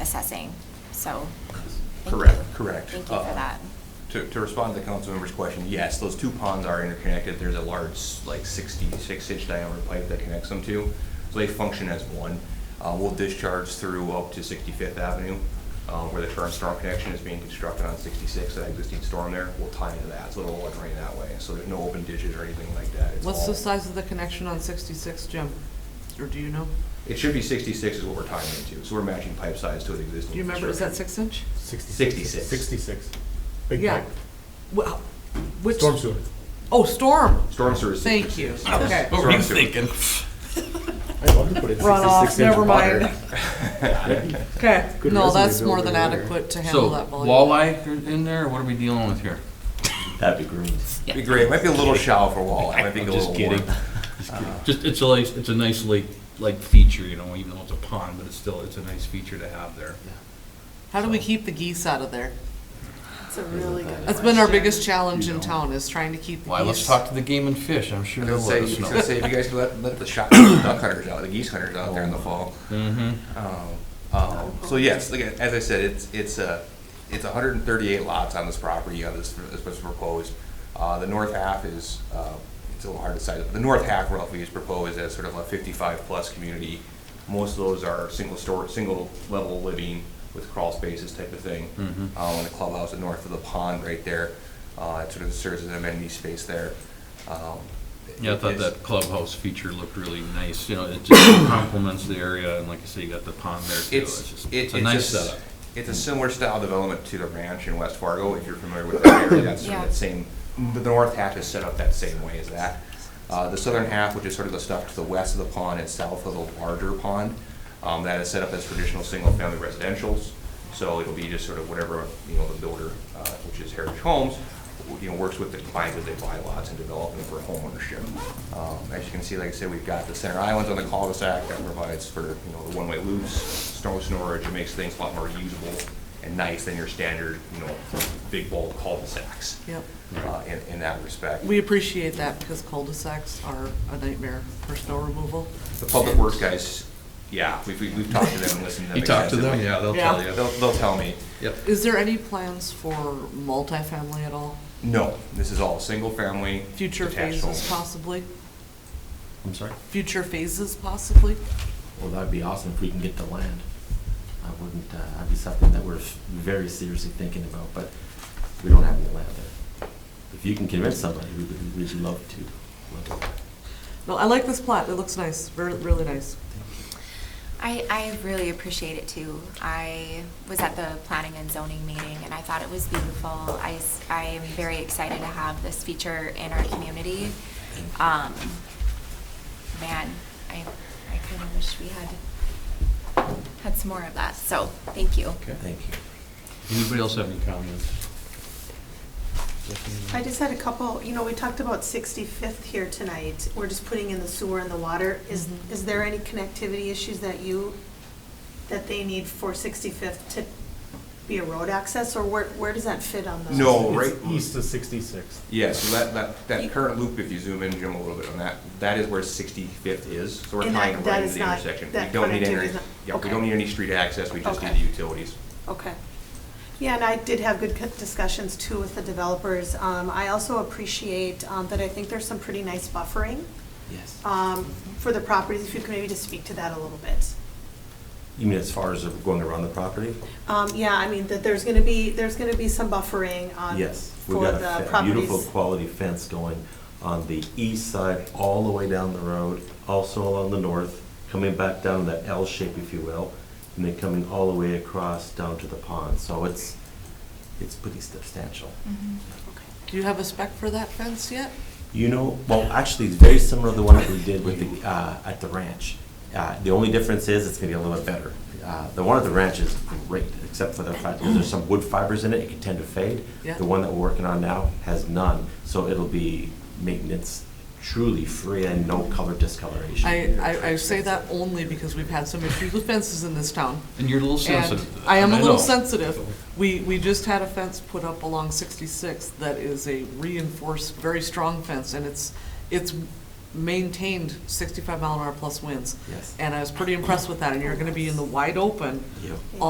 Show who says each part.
Speaker 1: assessing, so. thank you.
Speaker 2: Correct, correct.
Speaker 1: Thank you for
Speaker 2: Uh,
Speaker 1: that.
Speaker 2: To, to respond to the council member's question, yes, those two ponds are interconnected. There's a large, like sixty-six inch diameter pipe that connects them two. So they function as one. Uh, we'll discharge through up to Sixty-Fifth Avenue, uh, where the current storm connection is being constructed on sixty-six, that existing storm there. We'll tie into that, so it'll all drain that way. So there's no open ditches or anything like that. It's
Speaker 3: What's
Speaker 2: all-
Speaker 3: the size of the connection on sixty-six, Jim? Or do you know?
Speaker 2: It should be sixty-six is what we're tying into. So we're matching pipe size to an existing.
Speaker 3: Do you remember, is that
Speaker 2: construction.
Speaker 3: six inch?
Speaker 2: 66.
Speaker 4: 66. Big
Speaker 3: Yeah.
Speaker 4: pipe.
Speaker 3: Well, Which,
Speaker 4: Storm sewer.
Speaker 3: oh, storm,
Speaker 2: Storm sewer is
Speaker 3: thank you,
Speaker 2: 66.
Speaker 3: okay.
Speaker 2: What were you thinking?
Speaker 4: I'd love to put in
Speaker 3: Runoff,
Speaker 4: 66
Speaker 3: never
Speaker 4: inch water.
Speaker 3: mind, okay,
Speaker 4: Good
Speaker 3: no,
Speaker 4: resume
Speaker 3: that's more
Speaker 4: builder
Speaker 3: than
Speaker 4: there.
Speaker 3: adequate to handle
Speaker 5: So,
Speaker 3: that volume.
Speaker 5: walleye are in there, what are we dealing with here?
Speaker 6: Happy greens.
Speaker 2: Be great. It might be a little shallow for walleye. It might be a
Speaker 5: I'm
Speaker 2: little
Speaker 5: just
Speaker 2: warm.
Speaker 5: kidding. Uh, Just, it's a nice, it's a nice lake, like feature, you know, even though it's a pond, but it's still, it's a nice feature to have there.
Speaker 3: How do we keep the geese out of there?
Speaker 7: That's a really good
Speaker 3: That's been our
Speaker 7: question.
Speaker 3: biggest challenge in
Speaker 5: You know.
Speaker 3: town, is trying to keep the geese.
Speaker 5: Why, let's talk to the game and fish, I'm sure
Speaker 2: I
Speaker 5: they'll
Speaker 2: was gonna
Speaker 5: let
Speaker 2: say,
Speaker 5: us
Speaker 2: I was gonna say,
Speaker 5: know.
Speaker 2: if you guys could let, let the shot, the duck hunters out, the geese hunters out there in the fall.
Speaker 5: hmm
Speaker 2: Um, um, So yes, again, as I said, it's, it's a, it's hundred and thirty-eight lots on this property, uh, this, this was proposed. Uh, the north half is, uh, it's a little hard to decide, but the north half roughly is proposed as sort of a fifty-five-plus community. Most of those are single store, single level living with crawl spaces type of thing.
Speaker 5: Mhm.
Speaker 2: Uh, and the clubhouse is north of the pond right there, uh, it sort of serves as an amenity space there. Um,
Speaker 5: Yeah, I thought
Speaker 2: it's-
Speaker 5: that clubhouse feature looked really nice, you know, it just complements the area, and like I say, you got the pond there too, it's
Speaker 2: It's,
Speaker 5: just,
Speaker 2: it-
Speaker 5: it's a
Speaker 2: it's
Speaker 5: nice
Speaker 2: just-
Speaker 5: setup.
Speaker 2: It's a similar style development to the ranch in West Fargo, if you're familiar with that area, that's sort of
Speaker 1: Yeah.
Speaker 2: that same, the north half is set up that same way as that. Uh, the southern half, which is sort of the stuff to the west of the pond and south of the larger pond, um, that is set up as traditional single-family residentials. So it'll be just sort of whatever, you know, the builder, uh, which is Heritage Homes, w- you know, works with the clients as they buy lots and develop them for homeownership. Um, As you can see, like I said, we've got the center islands on the cul-de-sac that provides for, you know, the one-way loops, snow storage, it makes things a lot more usable and nice than your standard, you know, big bulk cul-de-sacs.
Speaker 3: Yep.
Speaker 2: uh, In, in that respect.
Speaker 3: We appreciate that, because cul-de-sacs are a nightmare for snow removal.
Speaker 2: The public works guys, yeah, we've, we've we've talked to them and listened to them.
Speaker 5: You talk to them,
Speaker 2: extensively.
Speaker 5: yeah, they'll
Speaker 3: Yeah.
Speaker 5: tell you.
Speaker 2: They'll, they'll tell me,
Speaker 5: Yep.
Speaker 3: Is there any plans for multifamily at all?
Speaker 2: no, this is all single family.
Speaker 3: Future
Speaker 2: detached
Speaker 3: phases
Speaker 2: homes.
Speaker 3: possibly?
Speaker 6: I'm sorry?
Speaker 3: Future phases possibly?
Speaker 6: Well, that'd be awesome if we can get the land. I wouldn't, uh, that'd be something that we're very seriously thinking about, but we don't have any land there. If you can convince somebody, we would, we'd love to. Love to.
Speaker 3: No, I like this plot, it looks nice, re- really nice.
Speaker 1: I, I really appreciate it too. I was at the planning and zoning meeting and I thought it was beautiful. I, s- I am very excited to have this feature in our community. Um, man, I, I kind of wish we had, had some more of that, so thank you.
Speaker 5: Okay.
Speaker 6: Thank you.
Speaker 5: Anybody else have any comments?
Speaker 7: I just had a couple, you know, we talked about 65th here tonight. We're just putting in the sewer and the water. Is,
Speaker 3: Mhm.
Speaker 7: is there any connectivity issues that you, that they need for 65th to be a road access? Or where, where does that fit on the?
Speaker 2: No,
Speaker 4: It's
Speaker 2: right.
Speaker 4: East of 66.
Speaker 2: Yeah, so that, that, that current loop, if you zoom in, Jim, a little bit on that, that is where Sixty-Fifth is, so we're
Speaker 7: And
Speaker 2: tying
Speaker 7: that- that
Speaker 2: right into
Speaker 7: is
Speaker 2: the
Speaker 7: not-
Speaker 2: intersection. We
Speaker 7: that
Speaker 2: don't need
Speaker 7: connectivity
Speaker 2: any.
Speaker 7: is not-
Speaker 2: Yeah, we
Speaker 7: okay.
Speaker 2: don't need any street access, we just need
Speaker 7: Okay.
Speaker 2: the utilities.
Speaker 7: Okay. Yeah, and I did have good co- discussions too with the developers. Um, I also appreciate um, that I think there's some pretty nice buffering
Speaker 6: Yes.
Speaker 7: um, for the properties, if you could maybe just speak to that a little bit.
Speaker 6: You mean as far as going around the property?
Speaker 7: Um, Yeah, I mean, that there's going to be, there's going to be some buffering um,
Speaker 6: Yes. We've
Speaker 7: for
Speaker 6: got a
Speaker 7: the
Speaker 6: fe- Beautiful
Speaker 7: properties.
Speaker 6: quality fence going on the east side, all the way down the road, also along the north, coming back down that L shape, if you will, and then coming all the way across down to the pond. So it's, it's pretty substantial.
Speaker 1: Mm-hmm.
Speaker 3: Do you have a spec for that fence yet?
Speaker 6: You know, well, actually, it's very similar to the one that we did with the, uh, at the ranch. Uh, the only difference is it's gonna be a little bit better. Uh, the one at the ranch is great, except for the fact that there's some wood fibers in it, it can tend to fade.
Speaker 3: Yeah.
Speaker 6: The one that we're working on now has none, so it'll be maintenance truly free and no color discoloration.
Speaker 3: I, I, I say that only because we've had some issues with fences in this town.
Speaker 5: And you're a little sensitive. to
Speaker 3: And
Speaker 5: that,
Speaker 3: I am a little
Speaker 5: know.
Speaker 3: sensitive. We, we just had a fence put up along 66 that is a reinforced, very strong fence, and it's, it's maintained 65 mile an hour plus winds.
Speaker 6: Yes.
Speaker 3: And I was pretty impressed with that, and you're gonna be in the wide open
Speaker 6: Yep.